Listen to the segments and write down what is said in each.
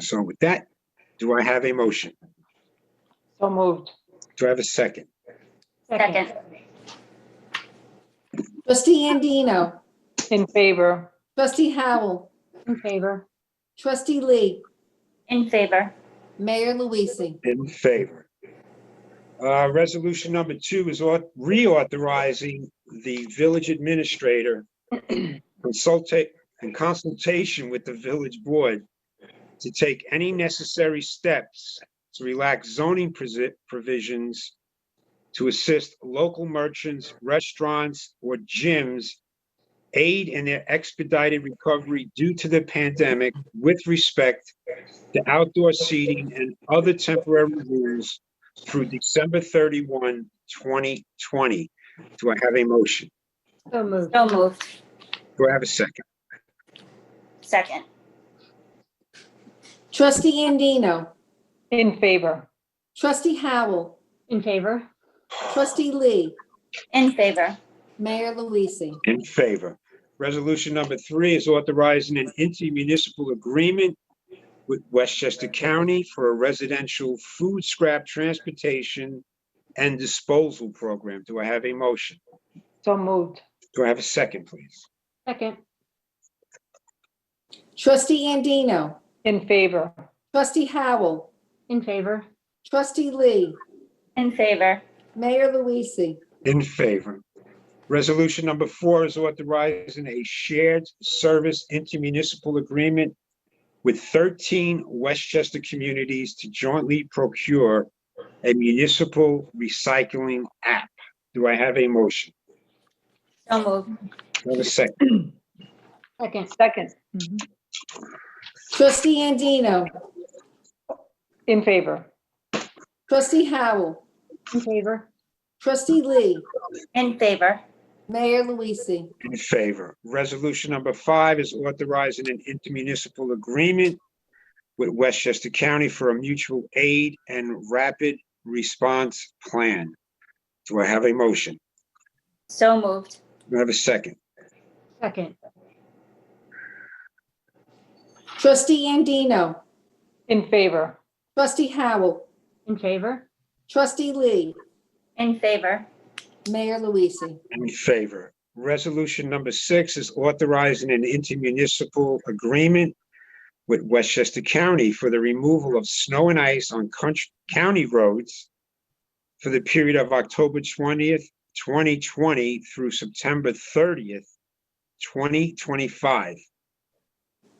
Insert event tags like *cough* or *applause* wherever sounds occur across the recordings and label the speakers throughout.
Speaker 1: So with that, do I have a motion?
Speaker 2: So moved.
Speaker 1: Do I have a second?
Speaker 3: Second.
Speaker 4: Trustee Andino.
Speaker 2: In favor.
Speaker 4: Trustee Howell.
Speaker 2: In favor.
Speaker 4: Trustee Lee.
Speaker 3: In favor.
Speaker 4: Mayor Luise.
Speaker 1: In favor. Uh, Resolution number two is au- reauthorizing the village administrator *clears throat* consultate, in consultation with the village board to take any necessary steps to relax zoning presi- provisions to assist local merchants, restaurants, or gyms aid in their expedited recovery due to the pandemic with respect the outdoor seating and other temporary rules through December 31, 2020. Do I have a motion?
Speaker 2: So moved.
Speaker 3: So moved.
Speaker 1: Do I have a second?
Speaker 3: Second.
Speaker 4: Trustee Andino.
Speaker 2: In favor.
Speaker 4: Trustee Howell.
Speaker 2: In favor.
Speaker 4: Trustee Lee.
Speaker 3: In favor.
Speaker 4: Mayor Luise.
Speaker 1: In favor. Resolution number three is authorizing an intermunicipal agreement with Westchester County for a residential food scrap transportation and disposal program. Do I have a motion?
Speaker 2: So moved.
Speaker 1: Do I have a second, please?
Speaker 2: Second.
Speaker 4: Trustee Andino.
Speaker 2: In favor.
Speaker 4: Trustee Howell.
Speaker 2: In favor.
Speaker 4: Trustee Lee.
Speaker 3: In favor.
Speaker 4: Mayor Luise.
Speaker 1: In favor. Resolution number four is authorizing a shared service intermunicipal agreement with 13 Westchester communities to jointly procure a municipal recycling app. Do I have a motion?
Speaker 3: So moved.
Speaker 1: Do I have a second?
Speaker 2: Second. Second.
Speaker 4: Trustee Andino.
Speaker 2: In favor.
Speaker 4: Trustee Howell.
Speaker 2: In favor.
Speaker 4: Trustee Lee.
Speaker 3: In favor.
Speaker 4: Mayor Luise.
Speaker 1: In favor. Resolution number five is authorizing an intermunicipal agreement with Westchester County for a mutual aid and rapid response plan. Do I have a motion?
Speaker 3: So moved.
Speaker 1: Do I have a second?
Speaker 2: Second.
Speaker 4: Trustee Andino.
Speaker 2: In favor.
Speaker 4: Trustee Howell.
Speaker 2: In favor.
Speaker 4: Trustee Lee.
Speaker 3: In favor.
Speaker 4: Mayor Luise.
Speaker 1: In favor. Resolution number six is authorizing an intermunicipal agreement with Westchester County for the removal of snow and ice on country, county roads for the period of October twentieth, twenty twenty through September thirtieth, twenty twenty-five.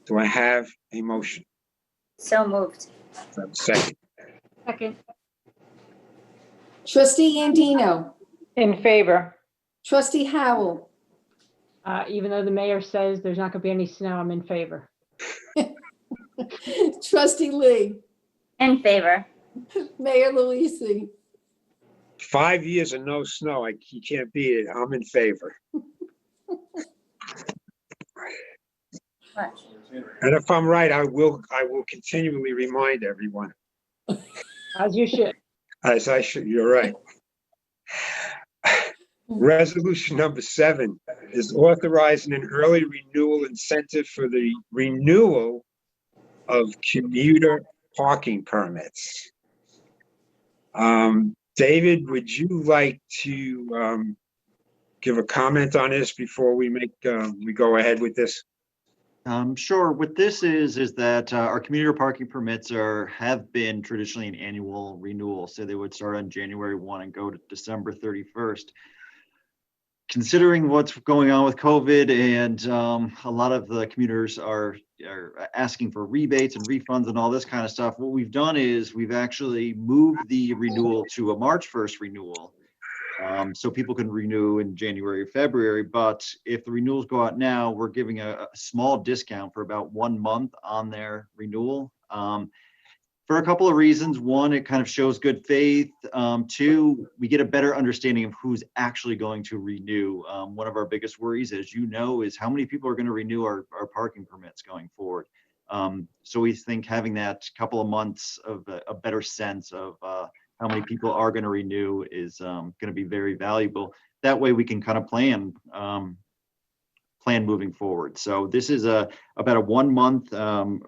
Speaker 1: Do I have a motion?
Speaker 3: So moved.
Speaker 1: Do I have a Second.
Speaker 2: Second.
Speaker 4: Trustee Andino.
Speaker 2: In favor.
Speaker 4: Trustee Howell. *laughs*
Speaker 5: Uh, even though the mayor says there's not gonna be any snow, I'm in favor.
Speaker 4: Trustee Lee.
Speaker 3: In favor.
Speaker 4: Mayor Luise.
Speaker 1: Five years of no snow, I, you can't beat it. I'm in favor. And if I'm right, I will, I will continually remind everyone,
Speaker 5: As you should.
Speaker 1: as I should, you're right. Resolution number seven is authorizing an early renewal incentive for the renewal of commuter parking permits. Um, David, would you like to, um, give a comment on this before we make, uh, we go ahead with this?
Speaker 6: Um, sure. What this is, is that uh, our commuter parking permits are, have been traditionally an annual renewal, so they would start on January one and go to December thirty-first. Considering what's going on with COVID and um, a lot of the commuters are, are asking for rebates and refunds and all this kind of stuff, what we've done is we've actually moved the renewal to a March first renewal. Um, so people can renew in January, February, but if the renewals go out now, we're giving a, a small discount for about one month on their renewal. Um, for a couple of reasons. One, it kind of shows good faith. Um, two, we get a better understanding of who's actually going to renew. Um, one of our biggest worries, as you know, is how many people are going to renew our, our parking permits going forward. Um, so we think having that couple of months of a, a better sense of, uh, how many people are going to renew is um, going to be very valuable. That way we can kind of plan, um, plan moving forward. So this is a, about a one month um,